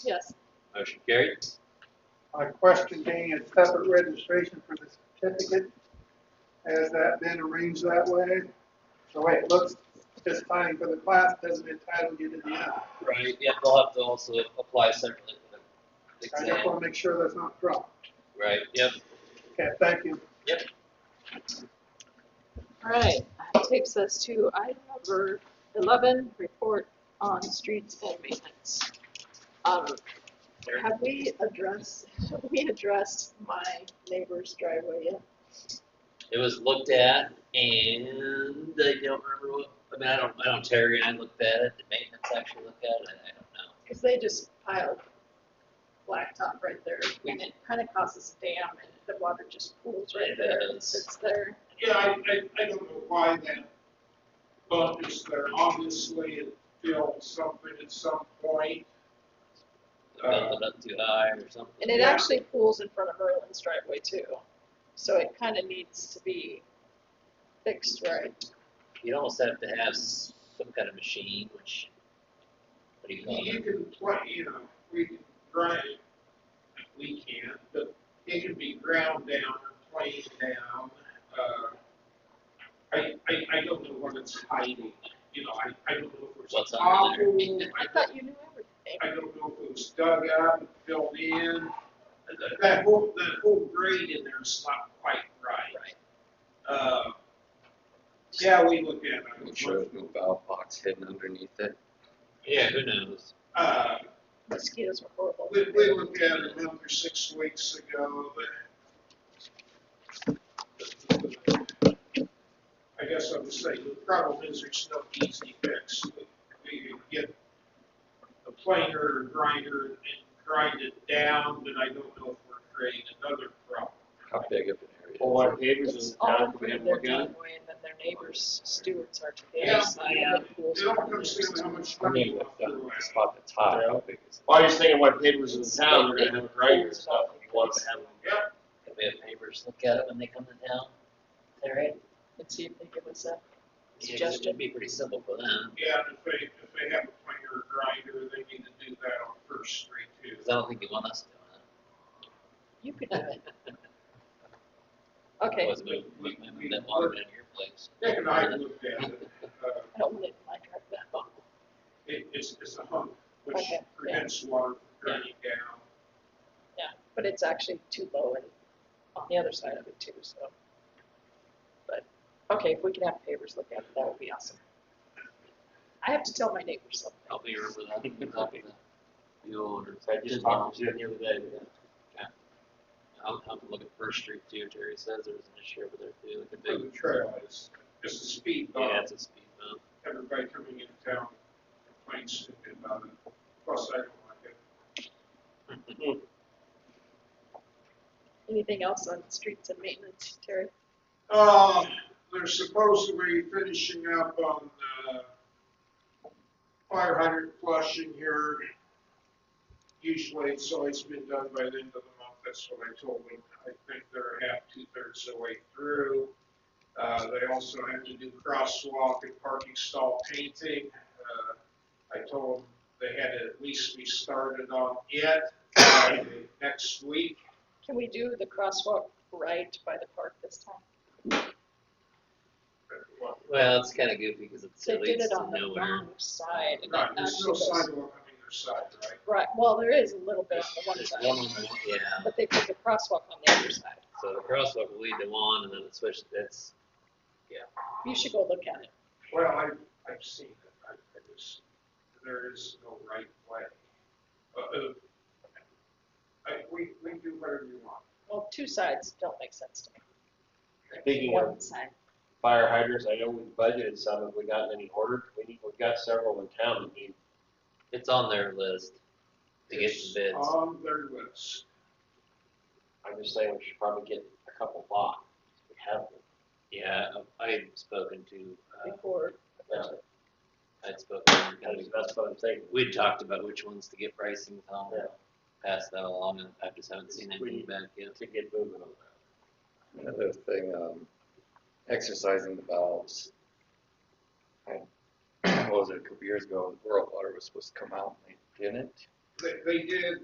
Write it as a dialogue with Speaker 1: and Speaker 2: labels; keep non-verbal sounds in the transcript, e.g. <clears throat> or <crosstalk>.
Speaker 1: Yes.
Speaker 2: Motion carried.
Speaker 3: My question being a separate registration for the certificate, has that been arranged that way? So way it looks just fine for the class, doesn't entitle you to the, other.
Speaker 4: Right, yeah, they'll have to also apply separately for the
Speaker 3: I just
Speaker 4: exam.
Speaker 3: wanna make sure that's not dropped.
Speaker 4: Right, yep.
Speaker 3: Okay, thank you.
Speaker 1: All right, that takes us to item number eleven, report on streets and maintenance. Um, have we addressed, <laughs> have we addressed my neighbor's driveway yet?
Speaker 4: It was looked at and I don't remember what, I mean, I don't, I don't, Terry and I looked at it, the maintenance actually looked at it, I I don't know.
Speaker 1: Cause they just piled blacktop right there and it kinda causes a dam and the water just pools right
Speaker 4: It
Speaker 1: there and
Speaker 4: does.
Speaker 1: sits there.
Speaker 5: Yeah, I, I, I don't know why that bump is there. Obviously, it filled something at some point.
Speaker 4: They Built it up too high or something.
Speaker 1: And it
Speaker 5: Yeah.
Speaker 1: actually pools in front of Merlin's driveway too. So it kinda needs to be fixed right.
Speaker 4: You'd almost have to have s- some kind of machine, which, what do you call
Speaker 5: You
Speaker 4: it?
Speaker 5: can play, you know, we can grind, we can't, but it can be ground down or played down. Uh, I, I, I don't know what it's hiding, you know, I, I don't know if
Speaker 4: What's
Speaker 5: it's
Speaker 4: under there?
Speaker 5: awful.
Speaker 1: I thought you knew everything.
Speaker 5: I don't know if it was dug up and filled in. That- That whole, that whole grade in there is not quite right.
Speaker 4: Right.
Speaker 5: Uh, Yeah, we look at it.
Speaker 6: I'm sure there's no valve box hidden underneath it.
Speaker 4: Yeah, who knows?
Speaker 5: Uh,
Speaker 1: Mosquitoes are horrible.
Speaker 5: We, we looked at it another six weeks ago, but. I guess I'm just saying, the problem is there's no easy fix. We can get a planer or grinder and grind it down, but I don't know if we're creating another problem.
Speaker 6: How big of an area?
Speaker 2: All our neighbors in
Speaker 1: It's
Speaker 2: the
Speaker 1: all
Speaker 2: town come
Speaker 1: over
Speaker 2: in
Speaker 1: their
Speaker 2: and look at it.
Speaker 1: driveway and then their neighbors, stewards are to the
Speaker 5: Yeah,
Speaker 1: other side.
Speaker 5: yeah.
Speaker 1: and it pools
Speaker 5: They don't
Speaker 1: over there.
Speaker 5: understand how much
Speaker 6: I
Speaker 5: money
Speaker 6: mean,
Speaker 5: we
Speaker 6: with
Speaker 5: threw
Speaker 6: the
Speaker 5: away.
Speaker 6: the spot that's high, how big is it?
Speaker 2: Well, you're saying what neighbors in the town are gonna have a grinder and stuff, and you want them to have them.
Speaker 5: Yep,
Speaker 4: Could we have neighbors look at it when they come to town? Terry?
Speaker 1: Let's see if they give us a
Speaker 4: Yeah, 'cause
Speaker 1: suggestion.
Speaker 4: It'd be pretty simple for them,
Speaker 5: yeah, and if they, if they have a planer or grinder, they need to do that on First Street too.
Speaker 4: because I don't think you want us doing it.
Speaker 1: You could do <laughs> it. Okay,
Speaker 4: Was we, we, we that water in your place.
Speaker 5: Nick and I looked at it, uh,
Speaker 1: I don't want it in my driveway.
Speaker 5: It, it's, it's a hump, which
Speaker 1: Okay, yeah.
Speaker 5: prevents water from draining down.
Speaker 1: Yeah, but it's actually too low and on the other side of it too, so. But, okay, if we can have neighbors look at it, that would be awesome. I have to tell my neighbors something.
Speaker 4: Help me remember that. Help me. The old.
Speaker 2: So I just talked to you the other day, yeah.
Speaker 4: I'll have to look at First Street too, Terry says there was an issue over there too, like a
Speaker 5: But
Speaker 4: big,
Speaker 5: the trail is, it's a speed
Speaker 4: yeah,
Speaker 5: bump.
Speaker 4: it's a speed bump.
Speaker 5: Everybody coming into town complains about it. Plus, I don't like it.
Speaker 1: Anything else on streets and maintenance, Terry?
Speaker 5: Uh, they're supposedly finishing up on, uh, fire hydrant flushing here. Usually, it's always been done by the end of the month, that's what I told them. I think they're half, two-thirds of the way through. Uh, they also have to do crosswalk and parking stall painting. Uh, I told them they had to at least be started on it by next week.
Speaker 1: Can we do the crosswalk right by the park this time?
Speaker 4: Well, it's kind of goofy because it
Speaker 1: They did
Speaker 4: leads
Speaker 1: it
Speaker 4: to
Speaker 1: on the
Speaker 4: nowhere.
Speaker 1: wrong side and it
Speaker 5: Right,
Speaker 1: actually
Speaker 5: there's no
Speaker 1: goes.
Speaker 5: sidewalk on either side, right?
Speaker 1: Right, well, there is a little bit on the one
Speaker 4: There's one
Speaker 1: side,
Speaker 4: on the, yeah,
Speaker 1: but they put the crosswalk on the other side.
Speaker 4: so the crosswalk will lead to one and then it switches, that's,
Speaker 1: You should go look at it.
Speaker 5: Well, I, I've seen it, I, I just, there is no right way. Uh, uh, I, we, we do whatever you want.
Speaker 1: Well, two sides don't make sense to me.
Speaker 2: Speaking of
Speaker 1: One side.
Speaker 2: fire hydrants, I know we budgeted some, have we gotten any ordered? We need, we've got several in town, I mean,
Speaker 4: it's on their list to get
Speaker 5: It's
Speaker 4: some bids.
Speaker 5: On their list.
Speaker 2: I'm just saying we should probably get a couple bought. We have them.
Speaker 4: Yeah, I've spoken to, uh,
Speaker 1: before.
Speaker 4: I'd spoken to
Speaker 2: I
Speaker 4: kind
Speaker 2: mean,
Speaker 4: of
Speaker 2: That's what I'm thinking.
Speaker 4: We'd talked about which ones to get pricing on,
Speaker 2: Yeah.
Speaker 4: pass that along, and I just haven't seen anything
Speaker 2: We-
Speaker 4: back yet.
Speaker 2: To get moving on that.
Speaker 6: Another thing, um, exercising the valves. <clears throat> I- What was it, a couple years ago, the world water was supposed to come out and they didn't.
Speaker 5: they, they did